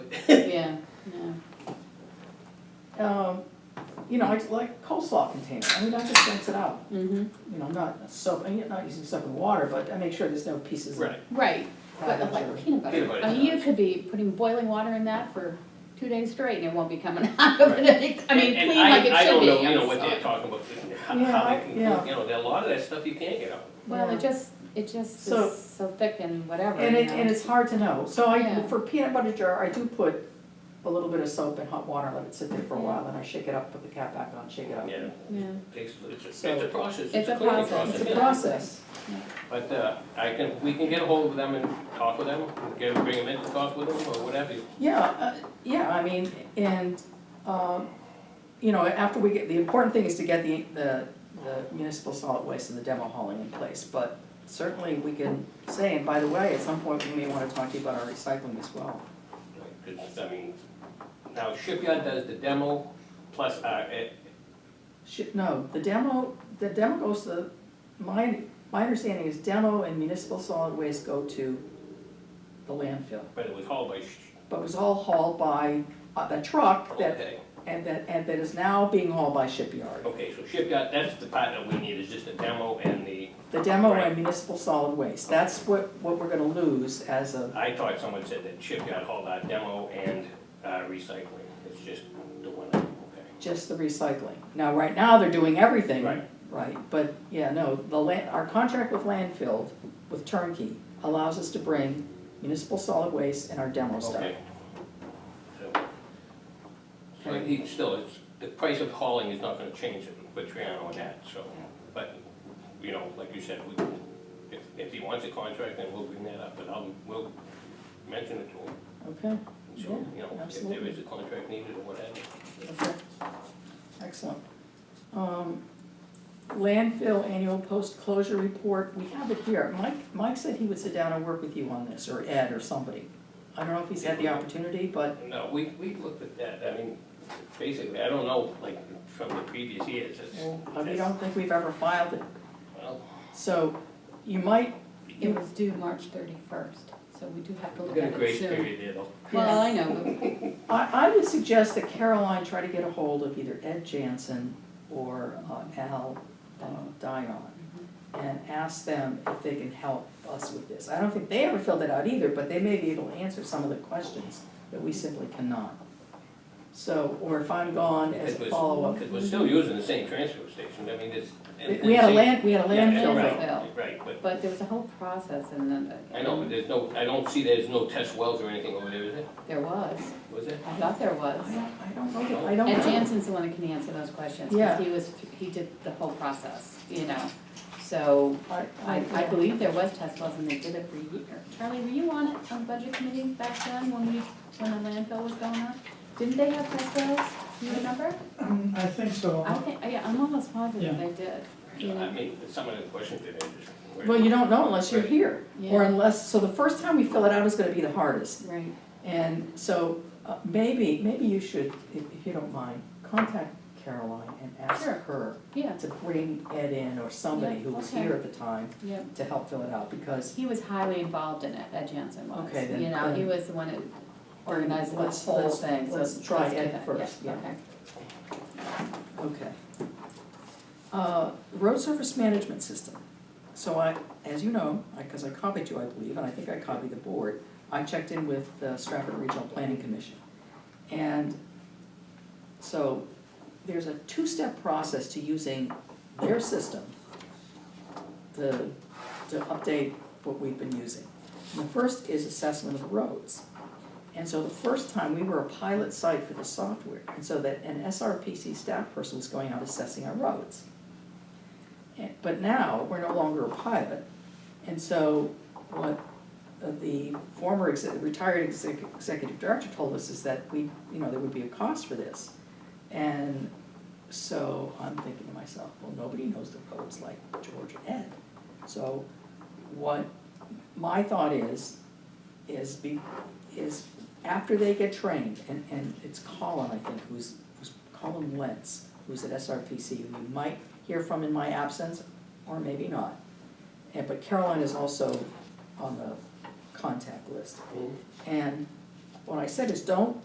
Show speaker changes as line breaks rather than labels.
um, you know, like, like coleslaw container, I mean, I just rinse it out,
Mm-hmm.
you know, not soap, I mean, not using soap and water, but I make sure there's no pieces of
Right.
Right, but
cabbage
like
or-
peanut
Peanut
butter,
butter,
I mean, you
yeah.
could be putting boiling water in that for two days straight and it won't be coming out of it, I mean,
And- and
clean like it should be.
I, I don't know, you
I'm
know, what they're
sorry.
talking about, how,
Yeah,
how
I-
they can, you
yeah.
know, there are a lot of that stuff you can't get out.
Well,
Yeah.
it just, it just
So-
is so thick and whatever,
And
you
it, and
know.
it's hard to know, so I,
Yeah.
for peanut butter jar, I do put a little bit of soap and hot water, let it sit there for a while, then I shake it up, put the cap back on, shake it up.
Yeah,
Yeah.
takes, it's, a- it's
So-
a process,
It's
it's
a
a cleaning
process.
process,
It's a
yeah.
process,
But, uh, I can, we can get a hold of them and talk with them, get, bring them in, to talk with them, or whatever.
yeah, uh, yeah, I mean, and, um, you know, after we get, the important thing is to get the, the, the municipal solid waste and the demo hauling in place, but certainly we can say, and by the way, at some point, we may wanna talk to you about our recycling as well.
Because, I mean, now Shipyard does the demo, plus, uh, it,
Should, no, the demo, the demo goes to, my, my understanding is demo and municipal solid waste go to the landfill.
but it was hauled by, Sh-
But it was all hauled by uh, the truck that,
okay,
and that, and that is now being hauled by shipyard.
okay, so Shipyard, that's the part that we need, is just the demo and the,
The demo and
Right.
municipal solid waste, that's what, what we're gonna lose as a,
I thought someone said that Shipyard hauled out demo and, uh, recycling, it's just the one, okay.
just the recycling. Now, right now, they're doing everything.
Right.
Right, but, yeah, no, the land, our contract with landfill, with turnkey, allows us to bring municipal solid waste and our demo stuff.
Okay. So, so he, still, it's, the price of hauling is not gonna change it with Triano and that, so, but, you know, like you said, we, if, if he wants a contract, then we'll bring that up, but I'll, we'll mention it to him.
Okay,
and So, you
Yeah,
know, if there
absolutely.
is a contract needed or whatever.
okay. Excellent. Um, Landfill annual post-closure report, we have it here. Mike, Mike said he would sit down and work with you on this, or Ed or somebody. I don't know if he's had the opportunity, but,
No, we, we looked at that, I mean, basically, I don't know, like, from the previous years, it's,
well, we don't think we've ever filed it.
well,
So you might,
It was due March thirty-first, so we do have to
we
look
got a
at
grace
it soon.
period there, though.
Well, I know, but
I, I would suggest that Caroline try to get a hold of either Ed Jansen or uh, Al uh, Dion and ask them if they can help us with this. I don't think they ever filled it out either, but they may be able to answer some of the questions that we simply cannot. So, or if I'm gone as a
Because-
follow-up.
Because we're still using the same transfer station, I mean, it's. and-
We had a
and-
land, we had a
Yeah,
landfill
right,
bill.
bill.
Right, but,
but there was a whole process and then. uh,
I know, but there's no, I don't see there's no test wells or anything over there, is it?
There was,
Was it?
I thought there was.
I don't, I don't know, that- I don't know.
And Jansen's the one that can answer those questions,
Yeah.
because he was, he did the whole process, you know, so
I,
I, I believe there was test wells and they did it for a year. Charlie, were you on it, on budget committee back then, when we, when the landfill was going on? Didn't they have test wells, Do you remember?
Um, I think so.
I think, yeah, I'm almost positive
Yeah.
they did, you
I
know,
mean, some of the questions that I just.
Well, you don't know unless you're here, or
Yeah.
unless, so the first time we fill it out is gonna be the hardest.
right,
And so uh, maybe, maybe you should, if if you don't mind, contact Caroline and ask
Sure.
her
yeah,
to bring Ed in or somebody
Yeah,
who was
okay.
here at the time
yeah.
to help fill it out because,
He was highly involved in it, Ed Jansen was,
Okay, then-
you know, he
then-
was the one that organized the
Let's-
whole
let's-
thing, so.
let's try
do
Ed
that.
first, yeah.
okay.
okay. Uh, Road surface management system. So I, as you know, because I copied you, I believe, and I think I copied the board, I checked in with the Stratford Regional Planning Commission. And so there's a two-step process to using their system to, to update what we've been using. And the first is assessment of the roads. And so the first time, we were a pilot site for the software, and so that an SRPC staff person was going out assessing our roads. And- But now, we're no longer a pilot, and so what uh, the former exe- retired exec- executive director told us is that we, you know, there would be a cost for this. And so I'm thinking to myself, well, nobody knows the roads like George and Ed. So what my thought is, is be, is after they get trained, and, and it's Colin, I think, who's, who's Colin Wentz, who's at SRPC, who you might hear from in my absence, or maybe not. And, but Caroline is also
Hmm?
on the contact list. And what I said is, don't